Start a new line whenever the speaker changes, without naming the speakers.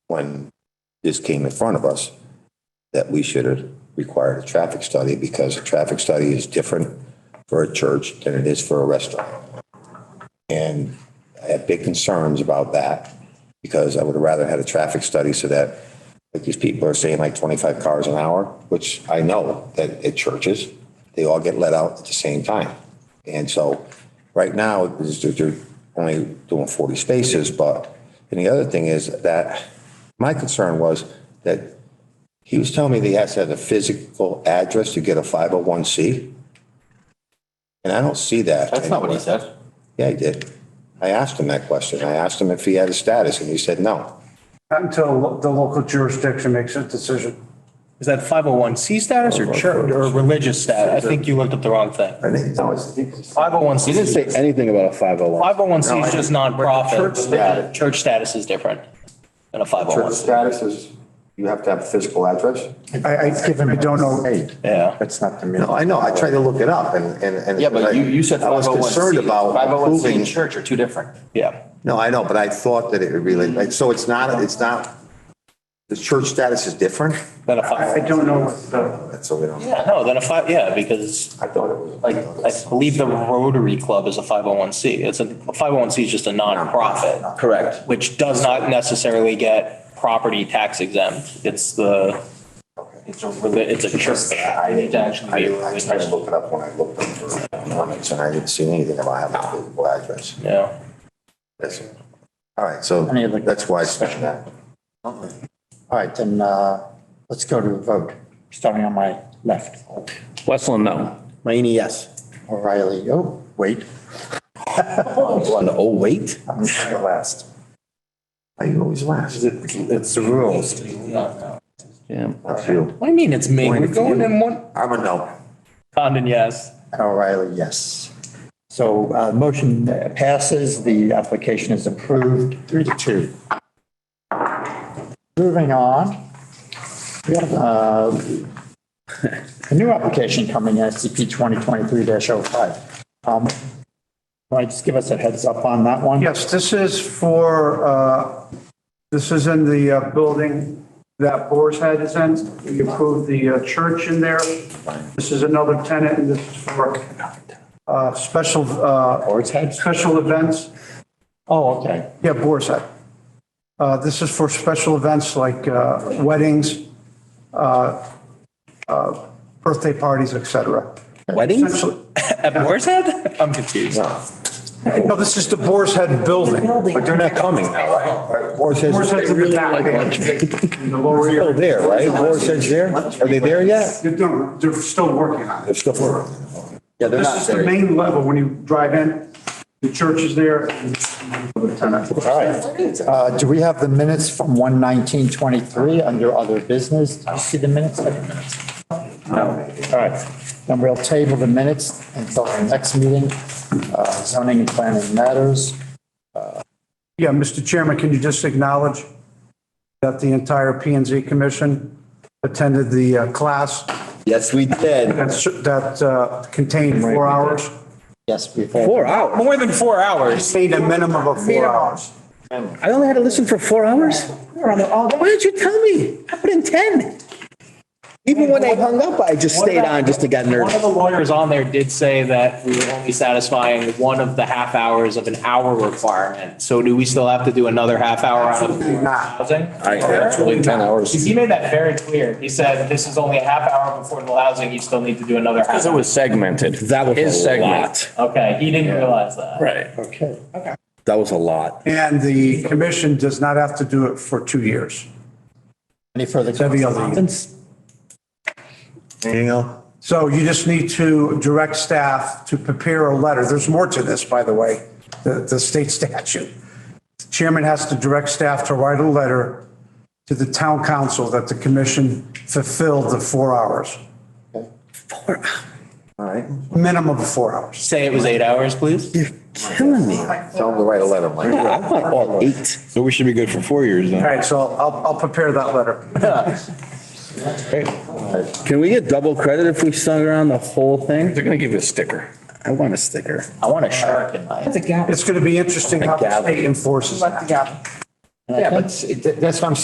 when this came in front of us, that we should have required a traffic study because a traffic study is different for a church than it is for a restaurant. And I have big concerns about that because I would have rather had a traffic study so that like these people are saying like 25 cars an hour, which I know that at churches, they all get let out at the same time. And so right now, it's- they're they're only doing 40 spaces, but, and the other thing is that my concern was that he was telling me that he has to have a physical address to get a 501C. And I don't see that.
That's not what he
anywhere.
said.
Yeah, he did. I asked him that question. I asked him if he had a status and he said no.
Until lo- the local jurisdiction makes a decision.
Is that 501C status or church
oh
or religious status? I think you looked up the wrong thing.
I think, no, it's.
501C.
He didn't say anything about a 501.
501C is just
church
nonprofit.
status-
Church status is different than a 501C.
status is, you have to have a physical address?
I, I give him, I don't know,
Hey,
Yeah.
that's not the
no,
minimum.
I know. I tried to look it up and, and. and-
Yeah, but you, you said
I was
501C.
concerned about
501C
approving.
and church are two different.
Yeah.
No, I know, but I thought that it would really, like, so it's not, it's not, the church status is different?
Than a
I
501.
don't know what the,
That's so we don't.
Yeah, no, than a 5, yeah, because
I thought it was.
like, I believe the Rotary Club is a 501C. It's a, a 501C is just a nonprofit.
Correct.
Which does not necessarily get property tax exempt. It's the, it's a, reli- it's a church. I need to actually be a
I tried to
religious.
look it up when I looked up for comments and I didn't see anything about having a physical address.
Yeah.
That's- All right, so
Any other-
that's why I said that.
All right, then, uh, let's go to a vote, starting on my left.
Westland, no.
Mayne, yes. O'Reilly, oh, wait.
Oh, wait.
I'm sorry, last.
Are you always last?
It's the rules.
Yeah.
That's you.
What do you mean it's me?
Point
We're
of
going
view.
in one.
I'm a no.
Condon, yes.
O'Reilly, yes. So, uh, motion passes, the application is approved, three to two. Moving on. We have, uh, a new application coming, SCP 2023-05. Um, Right, just give us a heads up on that one.
yes, this is for, uh, this is in the uh, building that Boar's Head is in. We approved the uh, church in there. This is another tenant and this is for uh, special, uh,
Board's head?
special events.
Oh, okay.
Yeah, Boar's Head. Uh, This is for special events like uh, weddings, uh, uh, birthday parties, et cetera.
Weddings?
Essentially-
At Boar's Head? I'm confused.
No, this is the Boar's Head building.
But they're not coming now, right? War says.
Boar's Head's in the back. In the lower
Still
area.
there, right? War says there? Are they there yet?
They're, doing- they're still working on it.
They're still there.
Yeah, they're
This
not
is the
there.
main level. When you drive in, the church is there.
All right. Uh, Do we have the minutes from 11923 under other business? Do you see the minutes? No. All right. Then we'll table the minutes until the next meeting, uh, zoning and planning matters.
Yeah, Mr. Chairman, can you just acknowledge that the entire P and Z Commission attended the uh, class
Yes, we did.
that's- that uh, contained four hours?
Yes, before.
Four hours.
More than four hours.
Contained a minimum of four hours.
I only had to listen for four hours? We were on there all day. Why didn't you tell me? I put in 10. Even when they hung up, I just stayed on just to get
One of
nervous.
the lawyers on there did say that we were only satisfying one of the half hours of an hour requirement. So do we still have to do another half hour on affordable housing?
Absolutely, 10 hours.
Because he made that very clear. He said, this is only a half hour of affordable housing. You still need to do another half.
Because it
hour."
was segmented.
That was
His
a
segment.
lot.
Okay, he didn't realize that.
Right.
Okay.
That was a lot.
And the commission does not have to do it for two years.
Any further?
Every other year.
comments?
Anything else?
So you just need to direct staff to prepare a letter. There's more to this, by the way, the, the state statute. The Chairman has to direct staff to write a letter to the town council that the commission fulfilled the four hours,
All right.
minimum of four hours.
Say it was eight hours, please.
You're killing me.
Tell them to write a letter, Mike.
I want all eight.
So we should be good for four years then.
All right, so I'll, I'll prepare that letter.
Can we get double credit if we sung around the whole thing?
They're going to give you a sticker.
I want a sticker.
I want a shark in my.
It's going to be interesting how the state enforces that.
And I think-
That's what I'm